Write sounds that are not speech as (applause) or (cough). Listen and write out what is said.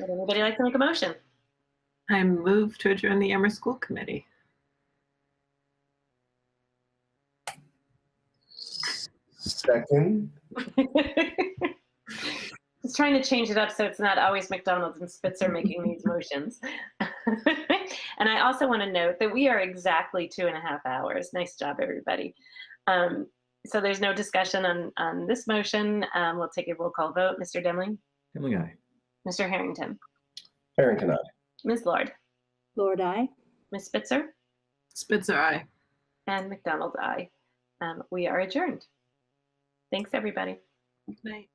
Would anybody like to make a motion? (laughs) I move to adjourn the Amherst School Committee. Second, Just trying to change it up so it's not always McDonald's and Spitzer making these motions. (laughs) and I also want to note that we are exactly two and a half hours. Nice job, everybody. Um, so there's no discussion on, on this motion. Um, we'll take a roll call vote. Mr. Demling, Emily, aye. Mr. Harrington, Harrington, aye. Ms. Lord, Lord, I. Ms. Spitzer, Spitzer, aye. and McDonald, I. Um, we are adjourned. Thanks, everybody. Good night.